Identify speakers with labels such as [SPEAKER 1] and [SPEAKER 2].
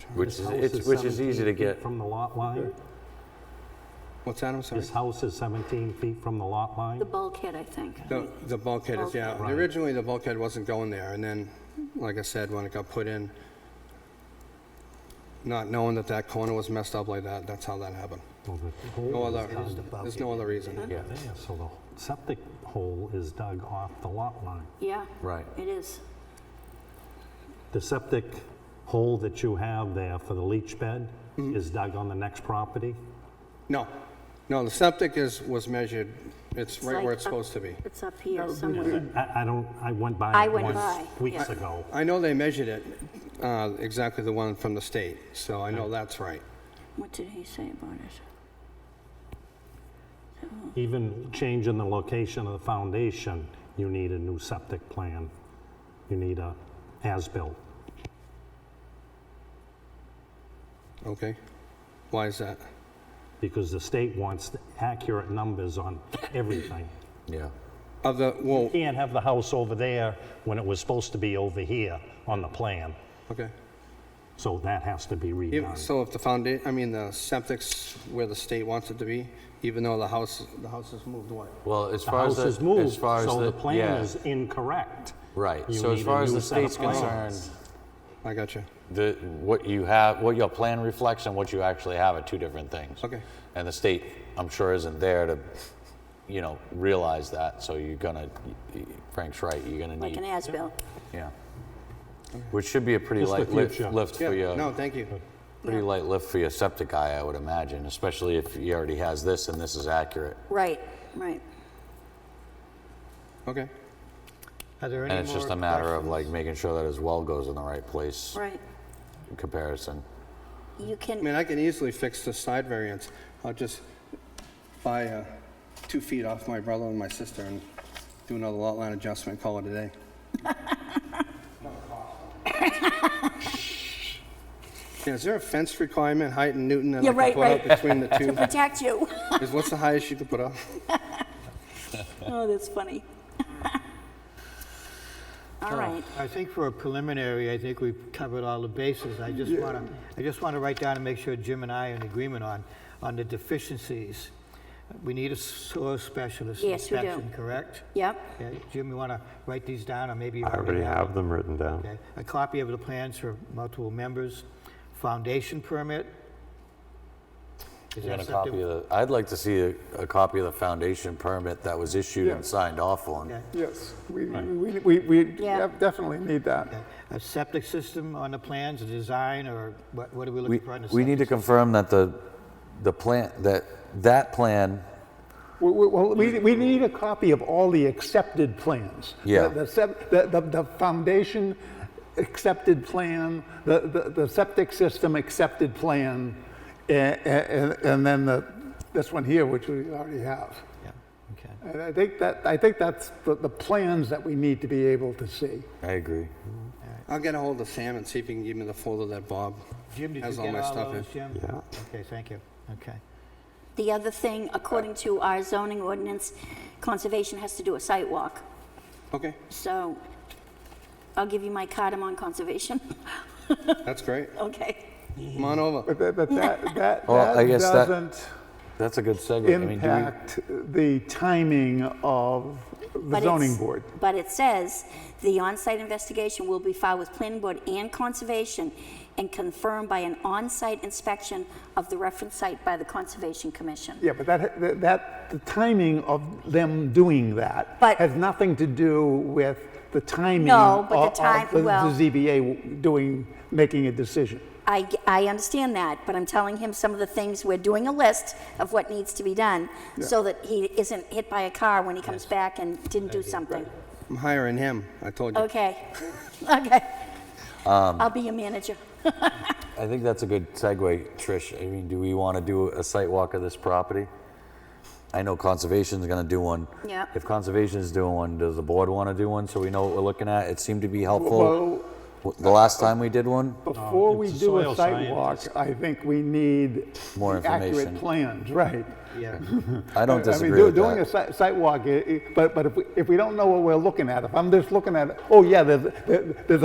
[SPEAKER 1] turn.
[SPEAKER 2] Which
[SPEAKER 1] This
[SPEAKER 2] is-
[SPEAKER 1] house
[SPEAKER 2] it's- which is
[SPEAKER 1] 17
[SPEAKER 2] easy to
[SPEAKER 1] feet
[SPEAKER 2] get.
[SPEAKER 1] From the lot line?
[SPEAKER 3] What's that, I'm sorry?
[SPEAKER 1] This house is 17 feet from the lot line?
[SPEAKER 4] The bulkhead, I think.
[SPEAKER 3] The the bulkhead is, yeah,
[SPEAKER 1] Right.
[SPEAKER 3] originally the bulkhead wasn't going there, and then, like I said, when it got put in, not knowing that that corner was messed up like that, that's how that happened.
[SPEAKER 1] Well, the hole
[SPEAKER 3] No
[SPEAKER 1] is
[SPEAKER 3] other,
[SPEAKER 1] dug
[SPEAKER 3] there's no other reason.
[SPEAKER 2] Yeah,
[SPEAKER 1] there, So the septic hole is dug off the lot line.
[SPEAKER 4] Yeah.
[SPEAKER 2] Right.
[SPEAKER 4] It is.
[SPEAKER 1] The septic hole that you have there for the leach bed
[SPEAKER 3] Mm-hmm.
[SPEAKER 1] is dug on the next property?
[SPEAKER 3] No, no, the septic is, was measured, it's right
[SPEAKER 4] like
[SPEAKER 3] where it's
[SPEAKER 4] up-
[SPEAKER 3] supposed to be.
[SPEAKER 4] It's up here somewhere.
[SPEAKER 1] I I don't, I went by
[SPEAKER 4] I
[SPEAKER 1] it
[SPEAKER 4] went
[SPEAKER 1] once
[SPEAKER 4] by,
[SPEAKER 1] weeks
[SPEAKER 4] yeah.
[SPEAKER 1] ago.
[SPEAKER 3] I know they measured it, uh, exactly the one from the state, so I know that's right.
[SPEAKER 4] What did he say about it?
[SPEAKER 1] Even changing the location of the foundation, you need a new septic plan. You need a as-built.
[SPEAKER 3] Okay? Why is that?
[SPEAKER 1] because the state wants accurate numbers on everything.
[SPEAKER 2] yeah.
[SPEAKER 3] Of the, well,
[SPEAKER 1] Can't have the house over there when it was supposed to be over here on the plan,
[SPEAKER 3] okay.
[SPEAKER 1] so that has to be
[SPEAKER 3] If-
[SPEAKER 1] redone.
[SPEAKER 3] So if the founda, I mean, the septic's where the state wants it to be, even though the house, the house is moved away.
[SPEAKER 2] Well, as
[SPEAKER 1] The
[SPEAKER 2] far as
[SPEAKER 1] house
[SPEAKER 2] the,
[SPEAKER 1] is moved,
[SPEAKER 2] as far as
[SPEAKER 1] so the
[SPEAKER 2] yeah,
[SPEAKER 1] plan is incorrect.
[SPEAKER 2] right.
[SPEAKER 1] You
[SPEAKER 2] So as
[SPEAKER 1] need a
[SPEAKER 2] far as
[SPEAKER 1] new
[SPEAKER 2] the
[SPEAKER 1] set of
[SPEAKER 2] state's
[SPEAKER 1] plans.
[SPEAKER 2] concerned,
[SPEAKER 3] I got you.
[SPEAKER 2] the what you have, what your plan reflects, and what you actually have are two different things.
[SPEAKER 3] Okay.
[SPEAKER 2] And the state, I'm sure, isn't there to, you know, realize that. So you're gonna, Frank's right. You're gonna
[SPEAKER 4] Like
[SPEAKER 2] need,
[SPEAKER 4] an as-built.
[SPEAKER 2] yeah. Which should be a pretty
[SPEAKER 1] Just the
[SPEAKER 2] light lift,
[SPEAKER 1] future.
[SPEAKER 2] lift
[SPEAKER 3] Yeah,
[SPEAKER 2] for your
[SPEAKER 3] no, thank you.
[SPEAKER 2] pretty
[SPEAKER 4] Yeah.
[SPEAKER 2] light lift for your septic guy, I would imagine, especially if he already has this and this is accurate.
[SPEAKER 4] Right, right.
[SPEAKER 3] Okay.
[SPEAKER 5] Are there any
[SPEAKER 2] And it's just
[SPEAKER 5] more
[SPEAKER 2] a matter of
[SPEAKER 5] questions?
[SPEAKER 2] like making sure that his well goes in the right place
[SPEAKER 4] Right.
[SPEAKER 2] in comparison.
[SPEAKER 4] You
[SPEAKER 3] I
[SPEAKER 4] can,
[SPEAKER 3] mean, I can easily fix the side variance. I'll just buy uh, two feet off my brother and my sister and do another lot line adjustment, call it a day. Yeah, is there a fence requirement, height in Newton that
[SPEAKER 4] Yeah,
[SPEAKER 3] I can
[SPEAKER 4] right,
[SPEAKER 3] put up
[SPEAKER 4] right.
[SPEAKER 3] between the two?
[SPEAKER 4] protect you.
[SPEAKER 3] Is What's the highest you could put up?
[SPEAKER 4] Oh, that's funny. All right.
[SPEAKER 5] I think for a preliminary, I think we've covered all the bases. I just want to, I just want to write down and make sure Jim and I are in agreement on, on the deficiencies. We need a soil specialist
[SPEAKER 4] Yes, we do.
[SPEAKER 5] inspection, correct?
[SPEAKER 4] Yep,
[SPEAKER 5] Okay, Jim, you want to write these down, or maybe you
[SPEAKER 6] I already have them written down.
[SPEAKER 5] Okay, a copy of the plans for multiple members, foundation permit. Is
[SPEAKER 2] You
[SPEAKER 5] that
[SPEAKER 2] got a
[SPEAKER 5] something-
[SPEAKER 2] copy of the, I'd like to see a, a copy of the foundation permit that was issued and signed off on.
[SPEAKER 5] Okay.
[SPEAKER 7] Yes, we, we, we, we
[SPEAKER 4] Yeah.
[SPEAKER 7] def- definitely need that.
[SPEAKER 5] A septic system on the plans, a design, or what, what are
[SPEAKER 2] We,
[SPEAKER 5] we looking for on the
[SPEAKER 2] we need to
[SPEAKER 5] septic?
[SPEAKER 2] confirm that the, the plan, that, that plan,
[SPEAKER 7] We, we- well, we, we need a copy of all the accepted plans.
[SPEAKER 2] Yeah.
[SPEAKER 7] The, the sep- the, the, the foundation accepted plan, the, the, the septic system accepted plan, and, and, and then the, this one here, which we already have.
[SPEAKER 5] Yeah, Okay.
[SPEAKER 7] And I think that, I think that's the, the plans that we need to be able to see.
[SPEAKER 2] I agree.
[SPEAKER 3] I'll get a hold of Sam and see if he can give me the folder that Bob
[SPEAKER 5] Jim, did you
[SPEAKER 3] has all
[SPEAKER 5] get
[SPEAKER 3] my
[SPEAKER 5] all
[SPEAKER 3] stuff in.
[SPEAKER 5] those, Jim?
[SPEAKER 6] Yeah.
[SPEAKER 5] Okay, thank you, okay.
[SPEAKER 4] The other thing, according to our zoning ordinance, conservation has to do a site walk.
[SPEAKER 3] Okay,
[SPEAKER 4] So I'll give you my card, I'm on conservation.
[SPEAKER 3] that's great.
[SPEAKER 4] Okay.
[SPEAKER 3] Come on over.
[SPEAKER 7] But that, but that, that,
[SPEAKER 2] Well, Oh, I
[SPEAKER 7] that
[SPEAKER 2] guess that-
[SPEAKER 7] doesn't
[SPEAKER 2] That's a good segue. I mean, do we-
[SPEAKER 7] impact the timing of the
[SPEAKER 4] But
[SPEAKER 7] zoning
[SPEAKER 4] it's-
[SPEAKER 7] board.
[SPEAKER 4] But it says, "The on-site investigation will be filed with planning board and conservation and confirmed by an on-site inspection of the reference site by the Conservation Commission."
[SPEAKER 7] Yeah, but that, that- that, the timing of them doing that
[SPEAKER 4] But-
[SPEAKER 7] has nothing to do with the timing
[SPEAKER 4] No, but the
[SPEAKER 7] of- of
[SPEAKER 4] time- well-
[SPEAKER 7] the ZBA doing, making a decision.
[SPEAKER 4] I, g- I understand that, but I'm telling him some of the things, we're doing a list of what needs to be done so that he isn't hit by a car when he comes back and didn't do something.
[SPEAKER 3] I'm hiring him, I told you.
[SPEAKER 4] Okay, okay. I'll be your manager.
[SPEAKER 2] I think that's a good segue, Trish. I mean, do we want to do a site walk of this property? I know conservation's going to do one.
[SPEAKER 4] Yeah.
[SPEAKER 2] If conservation's doing one, does the board want to do one so we know what we're looking at? It seemed to be helpful.
[SPEAKER 7] Well-
[SPEAKER 2] w- The last time we did one,
[SPEAKER 7] Before we
[SPEAKER 1] it's a
[SPEAKER 7] do
[SPEAKER 1] soil
[SPEAKER 7] a site walk,
[SPEAKER 1] scientist.
[SPEAKER 7] I think we need
[SPEAKER 2] More
[SPEAKER 7] the accurate
[SPEAKER 2] information.
[SPEAKER 7] plans, right?
[SPEAKER 5] Yeah,
[SPEAKER 2] I don't
[SPEAKER 7] mean,
[SPEAKER 2] disagree
[SPEAKER 7] do-
[SPEAKER 2] with
[SPEAKER 7] Doing a
[SPEAKER 2] that.
[SPEAKER 7] si- site walk, i- i- but, but if we, if we don't know what we're looking at, if I'm just looking at, oh yeah, there's, there- there's a